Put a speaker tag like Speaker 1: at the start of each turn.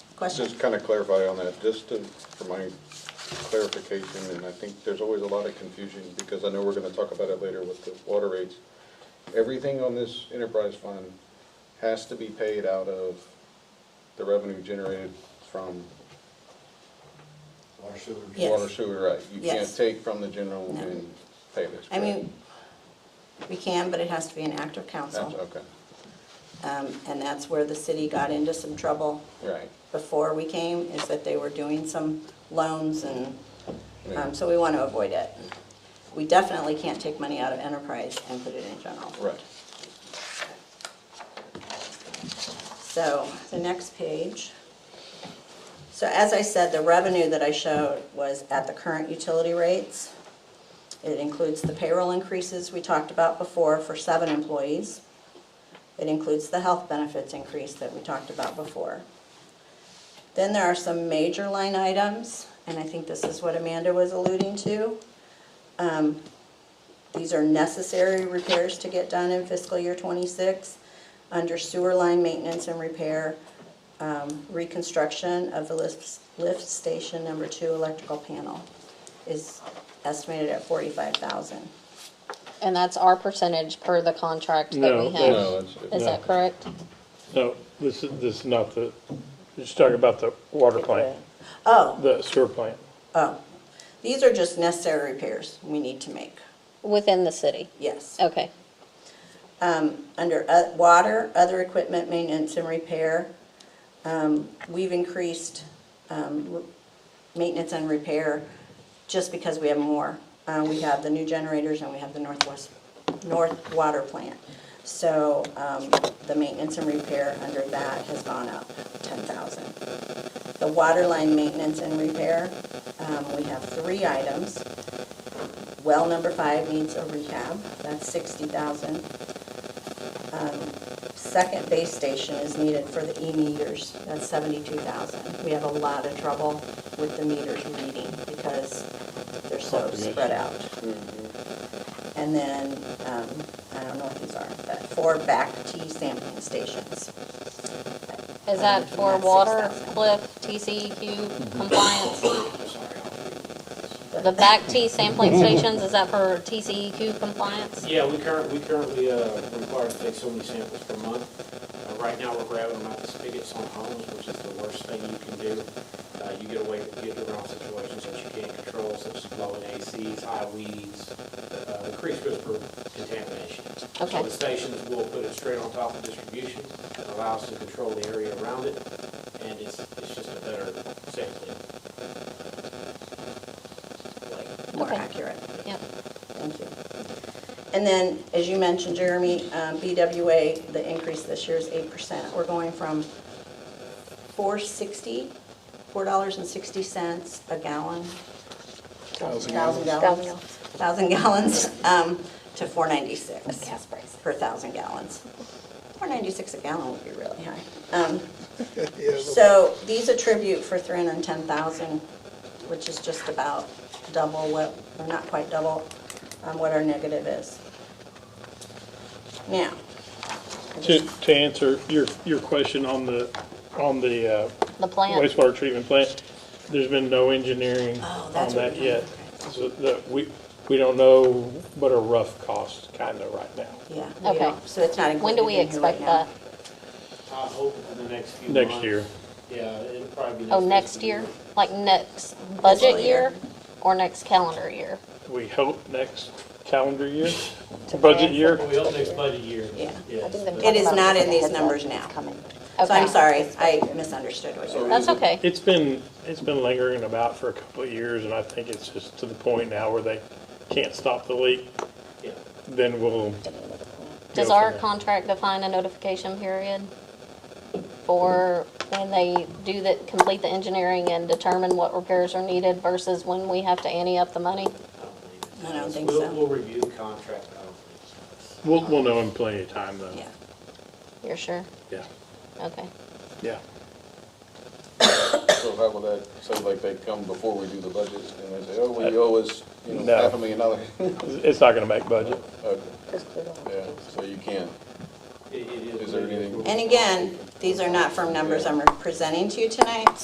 Speaker 1: Question?
Speaker 2: Just kind of clarify on that, just to, for my clarification, and I think there's always a lot of confusion, because I know we're gonna talk about it later with the water rates. Everything on this enterprise fund has to be paid out of the revenue generated from
Speaker 3: Water sewer.
Speaker 1: Yes.
Speaker 2: water sewer, right? You can't
Speaker 1: Yes.
Speaker 2: take from the general
Speaker 1: No.
Speaker 2: and pay this,
Speaker 1: I
Speaker 2: correct?
Speaker 1: mean, we can, but it has to be an act of
Speaker 2: That's,
Speaker 1: council.
Speaker 2: okay,
Speaker 1: Um, And that's where the city got into some trouble
Speaker 2: right.
Speaker 1: before we came, is that they were doing some loans and,
Speaker 2: Yeah.
Speaker 1: um, so we want to avoid it. We definitely can't take money out of enterprise and put it in general.
Speaker 2: Right.
Speaker 1: So, the next page. So as I said, the revenue that I showed was at the current utility rates. It includes the payroll increases we talked about before for seven employees. It includes the health benefits increase that we talked about before. Then there are some major line items, and I think this is what Amanda was alluding to. Um, These are necessary repairs to get done in fiscal year '26 under sewer line maintenance and repair, um, reconstruction of the lift, lift station number two electrical panel is estimated at forty-five thousand.
Speaker 4: And that's our percentage per the contract that
Speaker 5: No,
Speaker 2: No,
Speaker 4: we have.
Speaker 2: it's,
Speaker 4: Is
Speaker 2: it's-
Speaker 4: that correct?
Speaker 5: No, this is, this is not the, just talking about the water plant,
Speaker 1: Oh,
Speaker 5: the sewer plant.
Speaker 1: oh, these are just necessary repairs we need to make,
Speaker 4: Within the city?
Speaker 1: yes.
Speaker 4: Okay.
Speaker 1: Um, under o- water, other equipment maintenance and repair, um, we've increased, um, r- maintenance and repair just because we have more. Uh, we have the new generators and we have the Northwest, North Water Plant. So, um, the maintenance and repair under that has gone up ten thousand. The water line maintenance and repair, um, we have three items. Well number five needs a rehab, that's sixty thousand Um, second base station is needed for the E meters, that's seventy-two thousand. We have a lot of trouble with the meters reading because they're so spread out. And then, um, I don't know what these are, but four back T sampling stations.
Speaker 4: Is that for water, cliff, TCEQ compliance? The back T sampling stations, is that for TCEQ compliance?
Speaker 6: Yeah, we current, we currently, uh, require to take so many samples per month. Uh, right now, we're grabbing them out the spigots on homes, which is the worst thing you can do. Uh, you get away, you get around situations that you can't control, such as blowing ACs, high weeds, uh, increased risk for contamination.
Speaker 4: Okay.
Speaker 6: So the stations will put it straight on top of distribution, it allows to control the area around it, and it's, it's just a better sampling.
Speaker 1: Like, More
Speaker 4: Okay.
Speaker 1: accurate,
Speaker 4: Yep.
Speaker 1: thank you. And then, as you mentioned, Jeremy, um, BWA, the increase this year is eight percent. We're going from four sixty, four dollars and sixty cents a gallon
Speaker 3: Thousand
Speaker 1: thousand gallons, thousand gallons, um, to four ninety-six per thousand gallons. Four ninety-six a gallon would be really high. Um, so these attribute for three hundred and ten thousand, which is just about double what, or not quite double, um, what our negative is. Now,
Speaker 5: To, to answer your, your question on the, on the uh,
Speaker 4: The plant?
Speaker 5: wastewater treatment plant, there's been no engineering
Speaker 1: Oh,
Speaker 5: on
Speaker 1: that's what
Speaker 5: that
Speaker 1: we're doing.
Speaker 5: yet. So that, we, we don't know what a rough cost kinda right now.
Speaker 1: yeah, we
Speaker 4: Okay.
Speaker 1: don't, so it's not
Speaker 4: When
Speaker 1: included
Speaker 4: do
Speaker 1: in
Speaker 4: we
Speaker 1: here right
Speaker 4: expect
Speaker 1: now.
Speaker 4: that?
Speaker 6: I hope in the next few months.
Speaker 5: Next year,
Speaker 6: Yeah, it'll probably be.
Speaker 4: Oh,
Speaker 6: fiscal
Speaker 4: next year? Like next budget year or next calendar year?
Speaker 5: we hope next calendar year, budget year.
Speaker 6: Well, We hope Oh, next budget year.
Speaker 1: Yeah.
Speaker 6: Yes, but-
Speaker 1: It is not in these numbers now. So
Speaker 4: Okay.
Speaker 1: I'm sorry, I misunderstood what you were
Speaker 4: That's okay.
Speaker 5: It's been, it's been lingering about for a couple of years and I think it's just to the point now where they can't stop the leak.
Speaker 6: yeah.
Speaker 5: Then we'll
Speaker 4: Does
Speaker 5: go from
Speaker 4: our
Speaker 5: there.
Speaker 4: contract define a notification period for when they do the, complete the engineering and determine what repairs are needed versus when we have to ante up the money?
Speaker 6: I don't
Speaker 1: I don't think
Speaker 6: think it's- We'll-
Speaker 1: so.
Speaker 6: We'll review the contract, I don't think so.
Speaker 5: We'll, we'll know in plenty of time, though.
Speaker 1: Yeah.
Speaker 4: You're sure?
Speaker 5: Yeah.
Speaker 4: Okay.
Speaker 5: Yeah.
Speaker 2: So how will that, so like they come before we do the budget, and they say, oh, we owe us, you know,
Speaker 5: No.
Speaker 2: half a million dollars?
Speaker 5: It's not gonna make budget.
Speaker 2: Okay, Yeah, so you can.
Speaker 6: It- it
Speaker 2: Is there anything-
Speaker 1: And again, these are not firm numbers I'm presenting to you tonight,